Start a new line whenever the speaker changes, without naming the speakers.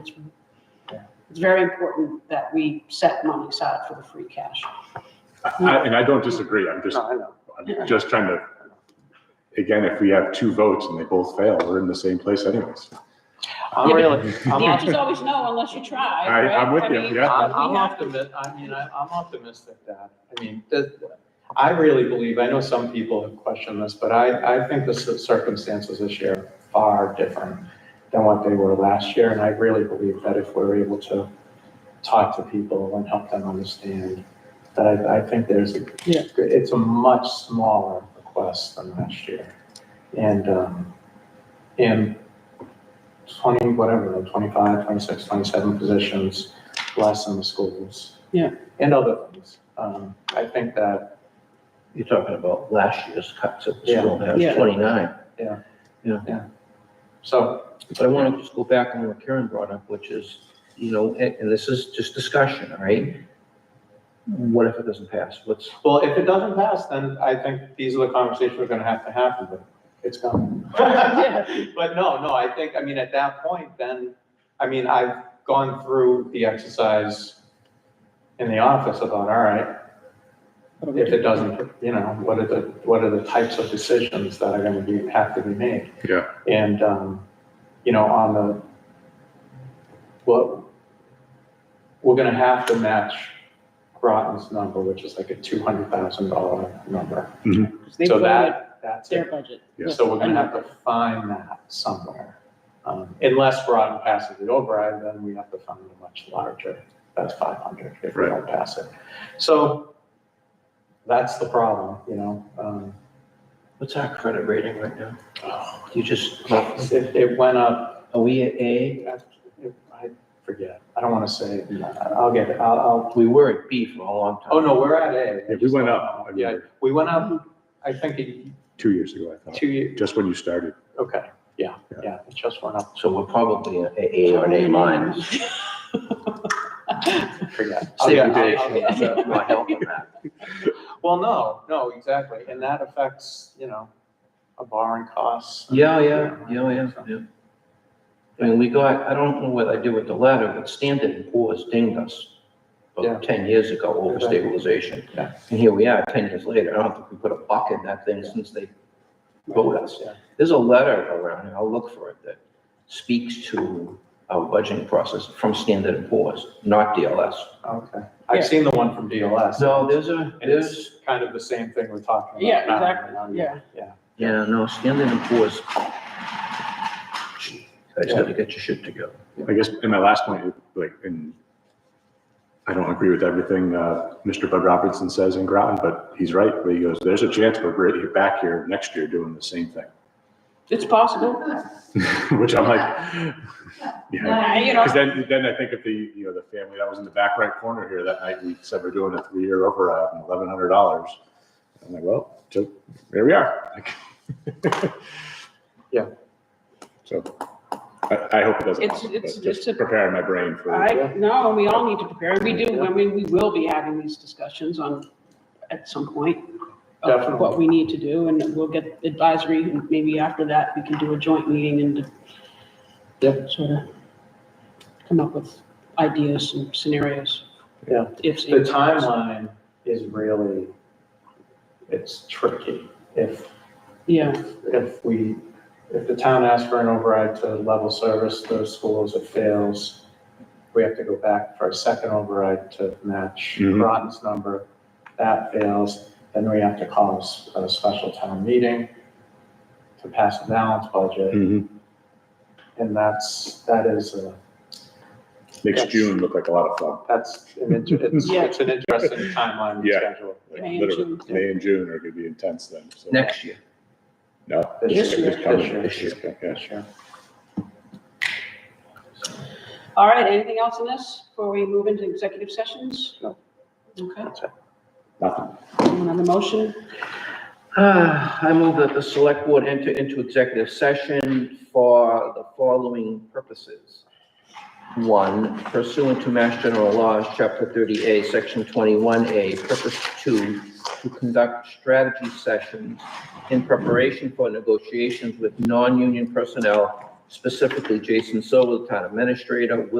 it's- It's very important that we set money aside for the free cash.
I- And I don't disagree, I'm just,
No, I know.
I'm just trying to, again, if we have two votes and they both fail, we're in the same place anyways.
I'm
Yeah,
really,
The
I'm,
answer's
opt-
always no unless you try.
I-
right?
I'm with
I
you,
mean,
yeah.
I'm,
we
I'm
have to-
optimistic, I mean, I, I'm optimistic that, I mean, that, I really believe, I know some people have questioned this, but I, I think the cir- circumstances this year are far different than what they were last year, and I really believe that if we're able to talk to people and help them understand, that I, I think there's, a
Yeah.
it's a much smaller request than last year. And, um, and twenty, whatever, 25, 26, 27 positions, less in the schools.
Yeah.
And other things. Um, I think that,
You're talking about last year's cuts at the
Yeah.
school, that
Yeah.
was twenty-nine.
so,
But I want to just go back on what Karen brought up, which is, you know, and, and this is just discussion, all right? What if it doesn't pass? What's,
well, if it doesn't pass, then I think these are the conversations we're gonna have to have, but it's coming. But no, no, I think, I mean, at that point, then, I mean, I've gone through the exercise in the office about, all right, if it doesn't, you know, what are the, what are the types of decisions that are gonna be, have to be made?
Yeah.
And, um, you know, on the, well, we're gonna have to match Groton's number, which is like a two hundred thousand dollar number.
They
So
voted
that, that's
their
it.
budget.
So we're gonna have to find that somewhere. Um, unless Groton passes the override, then we have to find a much larger, that's five hundred if we
Right.
don't pass it. So that's the problem, you know, um,
what's our credit rating right now?
Oh.
You just,
it, it went up,
are we at A?
I I forget, I don't wanna say, it. I'll get, it. I'll, I'll,
We were at B for a long time.
oh no, we're at A.
Yeah, we went up.
Yeah, we went up, I think, a-
Two years ago, I thought,
two years,
just when you started.
okay, yeah,
Yeah.
yeah, it just went up,
So we're probably at A or an A minus.
I forget. I'll
Save
get-
the
I'll-
day.
I'll get-
Not helping that.
Well, no, no, exactly, and that affects, you know, a borrowing costs.
Yeah, yeah, yeah, yeah, yeah. I mean, we got, I don't know what I did with the letter, but Standard and Poor's dinged us
Yeah.
about ten years ago over
Right.
stabilization.
Yeah.
And here we are, ten years later. I don't think we put a buck in that thing since they voted us.
Yeah.
There's a letter around, here. I'll look for it, that speaks to our budgeting process from Standard and Poor's, not DLS.
Okay,
Yeah.
I've seen the one from DLS.
So there's a,
And
there's,
it's kind of the same thing we're talking about.
Yeah,
now,
exactly,
you know,
yeah.
Yeah,
yeah, no, Standard and Poor's. I just gotta get your shit together.
I guess, in my last point, like, and I don't agree with everything, uh, Mr. Bud Robinson says in Groton, but he's right, where he goes, there's a chance we're right back here next year doing the same
It's possible.
thing, which I'm like, yeah.
Uh, You know,
Because then, then I think of the, you know, the family that was in the back right corner here that night, we said we're doing a three-year override and eleven hundred dollars. I'm like, well, so there we are. Like-
Yeah.
So I, I hope it doesn't
It's-
happen,
it's-
but
it's a-
just preparing my brain for,
I, no, we all need to prepare. We do, I mean, we will be having these discussions on, at some point. of What we need to do, and we'll get advisory, and maybe after that, we can do a joint meeting and
Yep.
sort of come up with ideas and scenarios.
Yeah.
If.
the timeline is really, it's tricky. If,
Yeah,
if we, if the town asks for an override to level service those schools, it fails. We have to go back for a second override to match
Mhm.
Groton's number. That fails, then we have to call a s- a special town meeting to pass a balanced budget,
Mhm.
and that's, that is a
makes
Yes.
June look like a lot of fun.
That's, an int- it's,
Yeah.
it's an interesting timeline and
Yeah.
schedule.
Like,
May and
literally,
June.
May and June are gonna be intense then, so.
Next year.
No.
This year.
it's coming,
This year.
this year, yeah.
This year.
all right, anything else on this before we move into executive sessions?
No.
Okay,
Nothing.
another motion?
Ah, I move that the select board enter into executive session for the following purposes. One, pursuant to Mass General Laws, Chapter 30A, Section 21A, Purpose 2, to conduct strategy sessions in preparation for negotiations with non-union personnel specifically Jason Silva, the town administrator, Willie